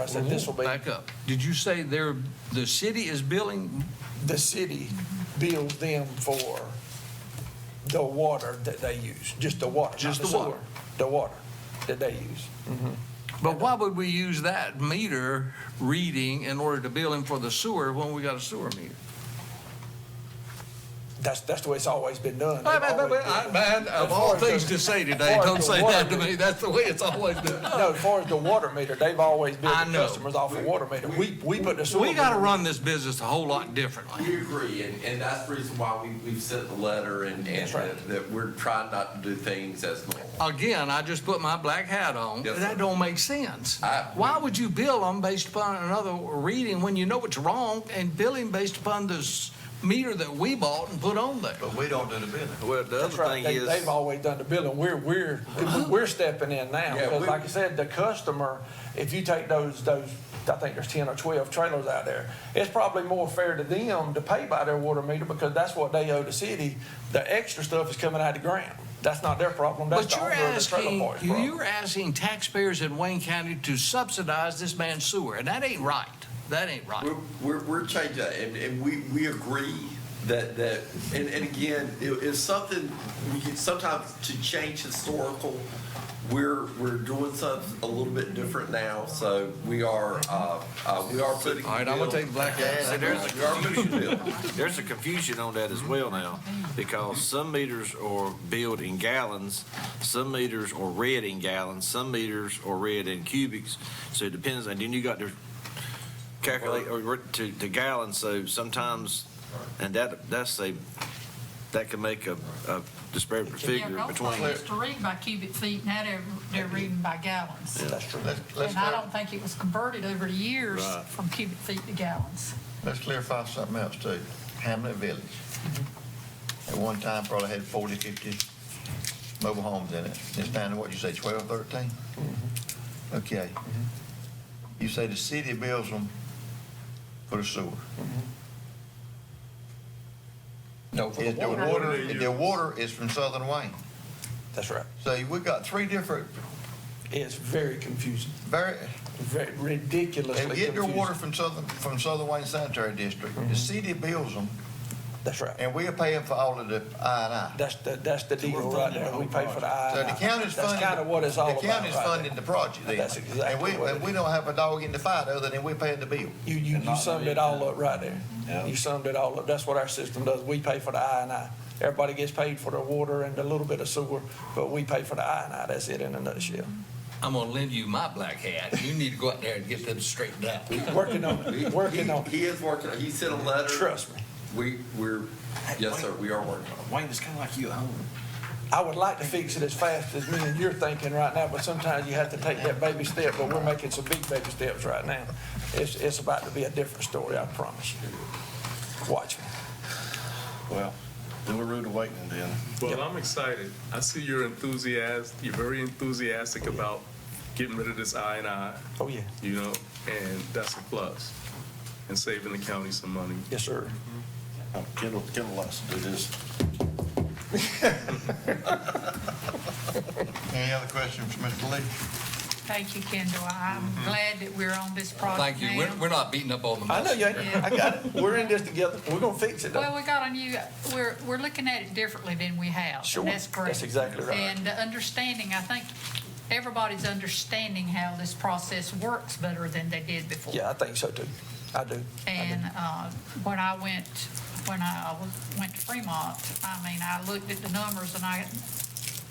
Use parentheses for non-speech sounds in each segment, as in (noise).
I said, this will be, Back up. Did you say there, the city is billing? the city bills them for the water that they use, just the water. not Just the sewer. water. The water that they use. But why would we use that meter reading in order to bill him for the sewer when we got a sewer meter? That's, that's the way it's always been done. I- I- I- I- Man, of all things to say today, don't say that to (laughs) me. That's the way it's always been. No, as far as the water meter, they've always I billed the know. customers off the water meter. We, we put the sewer. We gotta meter- run this business a whole lot differently. We agree, and, and that's the reason why we, we've sent the letter and, and That's right. that- that we're trying not to do things as normal. Again, I just put my black hat on. Yes, sir. That don't make sense. I- Why would you bill them based upon another reading when you know it's wrong and billing based upon this meter that we bought and put on there? But we don't do the business. Well, the That's other right. thing They, is, they've always done the billing. We're, we're, we're stepping in now. Yeah, Because we- like I said, the customer, if you take those, those, I think there's ten or twelve trailers out there, it's probably more fair to them to pay by their water meter because that's what they owe the city. The extra stuff is coming out of the grant. That's not their problem. That's But the you're owner of the trailer asking, park's problem. you're asking taxpayers in Wayne County to subsidize this man's sewer, and that ain't right. That ain't right. We're, we're, we're changing, that, and, and we, we agree that, that, and, and again, it, it's something, we can sometimes to change historical, we're, we're doing something a little bit different now, so we are, uh, uh, we are putting. All right, I'm gonna take the black hat. We are putting a bill. there's a confusion on that as well now, because some meters are billed in gallons, some meters are read in gallons, some meters are read in cubics, so it depends, and then you got to calculate, or to, to gallons, so sometimes, and that, that's a, that can make a, a disparate Yeah, figure Gulfport between. used to read by cubic feet, now they're, they're reading by gallons. That's true. Let's, let's, And I clar- don't think it was converted over the years Right. from cubic feet to gallons. let's clarify something else too. Hamlet Village. Mm-hmm. At one time probably had 40, 50 mobile homes in it. Mm-hmm. It's down to what you say, 12, 13? Okay. Mm-hmm. You say the city builds them for the sewer. Mm-hmm. No, for the Is the water. water, the water is from Southern Wayne. That's right. So we got three different, It's very confusing, very, very ridiculously They get their water confusing. from Southern, from Southern Wayne Sanitary District. Mm-hmm. The city bills them, That's right. and we are paying for all of the I and I. That's the, that's the deal right there. We pay for the I So and the I. county's funding. That's kind of what it's all about. The county's right there. funding the project then. That's exactly And what we, it and we don't have a dog in the fight other than we paying the bill. You, you, you summed it all up right there. You summed it all up. That's what our system does. We pay for the I and I. Everybody gets paid for their water and a little bit of sewer, but we pay for the I and I. That's it in a nutshell. I'm gonna lend you my black hat. You need to go out there and get them straightened out. Working on it, working He- on it. He is working, he sent a letter. Trust me. We, we're, yes, sir, we are working on it. Wayne, it's kind of like you at home. I would like to fix it as fast as me and you're thinking right now, but sometimes you have to take that baby step, but we're making some big baby steps right now. It's, it's about to be a different story, I promise you. Watch me. Well, then we're rude awakening then. Well, I'm excited. I see your enthusiasm. You're very enthusiastic about getting rid of this I and I, Oh, yeah. you know, and that's a plus. And saving the county some money. Yes, sir. Um, Kendall, Kendall likes to do this. Any other questions, Mr. Lee? Thank you, Kendall. I'm glad that we're on this project Thank you. We're, we're now. not beating up on the I know mess. you ain't, I got it. We're in this together. We're gonna fix it though. Well, we got a new, we're, we're looking at it differently than we have. and Sure. That's great. That's exactly right. And the understanding, I think, everybody's understanding how this process works better than they did before. Yeah, I think so too. I do. And uh, when I went, when I was- went to Fremont, I mean, I looked at the numbers and I,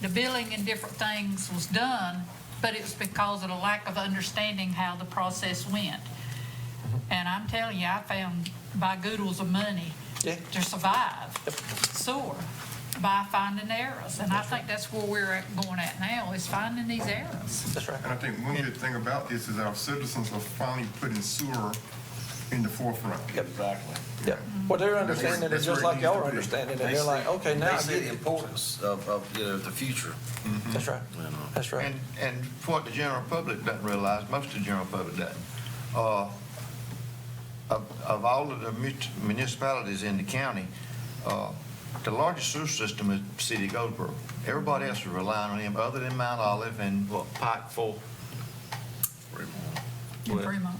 the billing and different things was done, but it was because of the lack of understanding how the process went. And I'm telling you, I found by goodles of money Yeah. to survive sewer by finding errors. And I think that's where we're at- going at now, is finding these errors. That's right. And I think one good thing about this is our citizens are finally putting sewer in the forefront. Exactly. Yeah. Well, they're understanding it That's just where it like y'all needs are to be. understanding it. They're like, okay, now They I see get the it. importance of, of, you know, the future. That's right. You know. That's right. And, and what the general public doesn't realize, most of the general public doesn't, uh, of, of all of the mut- municipalities in the county, uh, the largest sewer system is City of Goldsboro. Everybody else is relying on them, other than Mount Olive and what, Pikeville, in Fremont.